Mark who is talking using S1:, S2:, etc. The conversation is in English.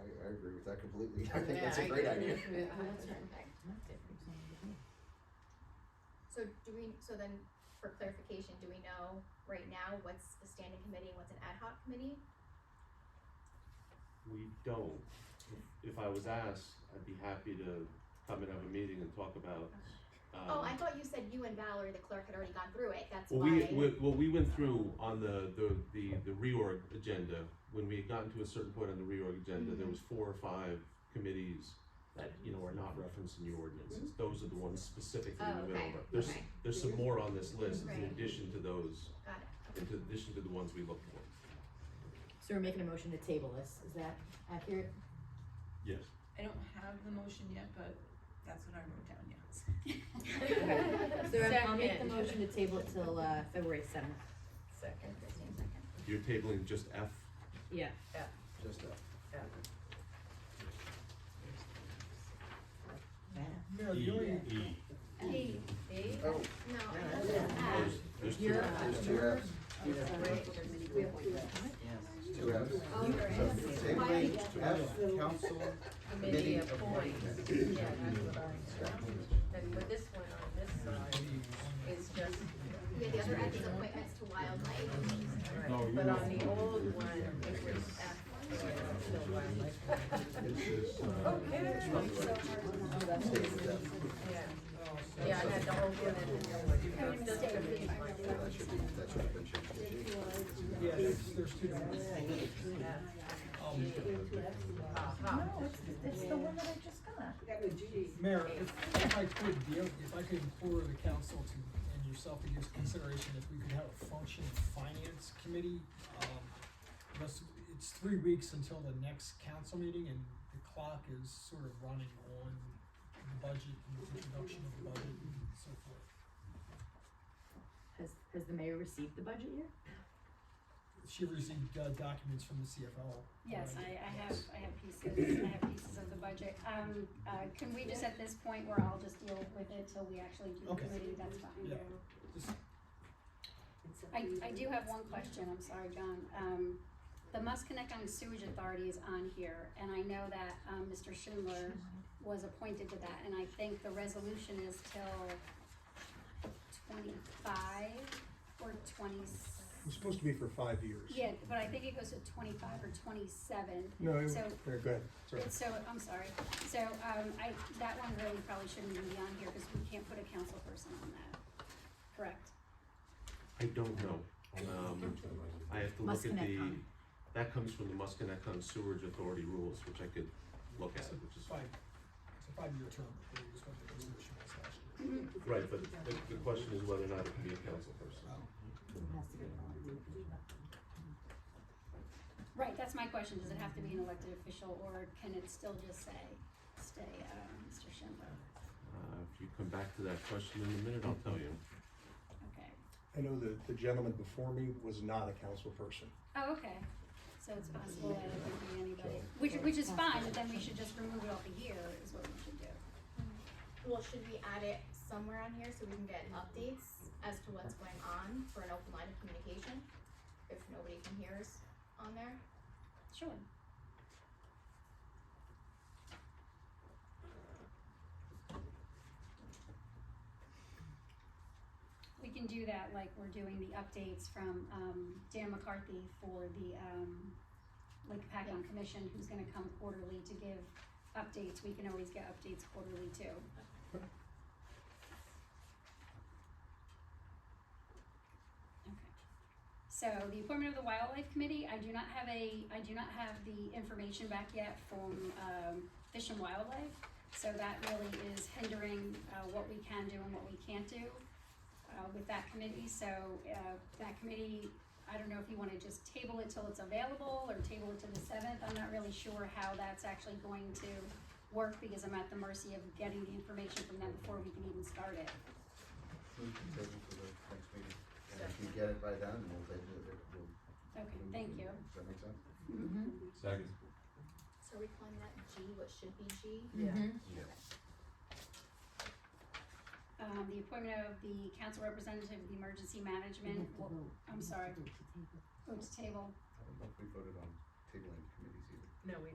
S1: with that completely. I think
S2: Yeah,
S1: that's a
S2: I
S1: great
S2: agree
S1: idea.
S2: with that.
S3: So do we, so then for clarification, do we know right now what's a standing committee and what's an ad hoc committee?
S4: We don't. If- If I was asked, I'd be happy to come and have a meeting and talk about,
S3: Oh, I
S4: um,
S3: thought you said you and Valerie, the clerk, had already gone through it, that's
S4: well, we,
S3: why.
S4: we- well, we went through on the, the, the, the reorg agenda. When we had gotten to a certain point on the reorg agenda,
S3: Mm-hmm.
S4: there was four or five committees that, you know, are not referenced in your ordinances. Those are the ones specifically
S3: Mm-hmm. Oh,
S4: we went
S3: okay,
S4: over. There's,
S3: okay.
S4: there's some more on this list in
S3: Right.
S4: addition to those,
S3: Got it.
S4: in addition to the ones we looked for.
S5: So we're making a motion to table this, is that accurate?
S4: Yes.
S2: I don't have the motion yet, but that's what I wrote down, yes.
S5: So I'll- I'll make the
S6: Second.
S5: motion to table it till, uh, February seventh.
S6: Second.
S3: Christine, second.
S4: You're tabling just F?
S5: Yeah.
S1: Just that.
S4: E,
S7: No, you already-
S3: Hey,
S6: E?
S1: Oh, uh, Yeah,
S3: no, I love
S1: yeah.
S3: that.
S4: There's, there's two
S5: You're-
S4: Fs.
S1: there's two Fs, two Fs.
S6: Oh, there
S1: So,
S6: is.
S1: Tabling F, council,
S6: Committee
S1: committee
S6: appoint.
S1: appointment.
S6: Yeah, that's what I- And with this one on this side is just,
S3: Yeah, the other end is appointments to wildlife.
S6: right, but on the old one, it was F. so it's still wildlife. Okay.
S1: Tabling F.
S6: Yeah, yeah, I had the whole one and then the
S1: Yeah, that should be, that should have been changed. to G.
S7: Yeah, there's, there's two different things.
S2: No, it's, it's the one that I just got.
S7: Mayor, if, if I could, the, if I could implore the council to, and yourself to give consideration if we could have a functioning finance committee. Um, Because it's three weeks until the next council meeting and the clock is sort of running on the budget and the introduction of the budget and so forth.
S5: Has, has the mayor received the budget yet?
S7: She received uh, documents from the CFO.
S8: Yes,
S7: right?
S8: I, I have, I have pieces, I have pieces of the budget. Um, uh, can we just at this point where I'll just deal with it till we actually do the
S7: Okay.
S8: committee, that's fine.
S7: Yeah. Just-
S8: I, I do have one question, I'm sorry, John. Um, the Must Connect on Sewage Authority is on here, and I know that, um, Mr. Schindler was appointed to that, and I think the resolution is till twenty-five or
S9: It's
S8: twenty,
S9: supposed to be for five years.
S8: yeah, but I think it goes to twenty-five or twenty-seven.
S9: No, it-
S8: So-
S9: yeah, go ahead, sorry.
S8: So, I'm sorry, so, um, I, that one really probably shouldn't even be on here, because we can't put a council person on that, correct?
S4: I don't know. Um, I have to look at the,
S5: Muskinecon.
S4: that comes from the Muskinecon Sewerage Authority rules, which I could look at, which is,
S7: Five, it's a five-year term, I believe, is what the resolution was last year.
S4: right, but the, the question is whether or not it can be a council person.
S5: It has to be.
S8: Right, that's my question, does it have to be an elected official, or can it still just say, stay, uh, Mr. Schindler?
S4: Uh, if you come back to that question in a minute, I'll tell you.
S8: Okay,
S9: I know the, the gentleman before me was not a council person.
S8: oh, okay, so it's possible that it could be anybody, which, which is fine, but then we should just remove it off of here, is what we should do.
S3: Well, should we add it somewhere on here so we can get updates as to what's going on for an open line of communication? If nobody can hear us on there?
S8: Sure. We can do that like we're doing the updates from, um, Dan McCarthy for the, um, Lake Pacon Commission, who's gonna come quarterly to give updates. We can always get updates quarterly too. Okay. So the appointment of the wildlife committee, I do not have a, I do not have the information back yet from, um, Fish and Wildlife. So that really is hindering, uh, what we can do and what we can't do, uh, with that committee. So, uh, that committee, I don't know if you wanna just table it till it's available or table it to the seventh. I'm not really sure how that's actually going to work because I'm at the mercy of getting the information from them before we can even start it.
S1: We can table for the next meeting. And if we get it by then, we'll table it. We'll-
S8: Okay, thank you.
S1: Does that make sense?
S4: Second.
S3: So are we calling that G, what should be G?
S6: Yeah.
S1: Yeah.
S8: Um, the appointment of the council representative of the emergency management,
S5: Mhm.
S8: well, I'm sorry,
S5: Vote to table.
S8: vote to table.
S1: I don't know if we voted on tabling committees either.
S6: No, we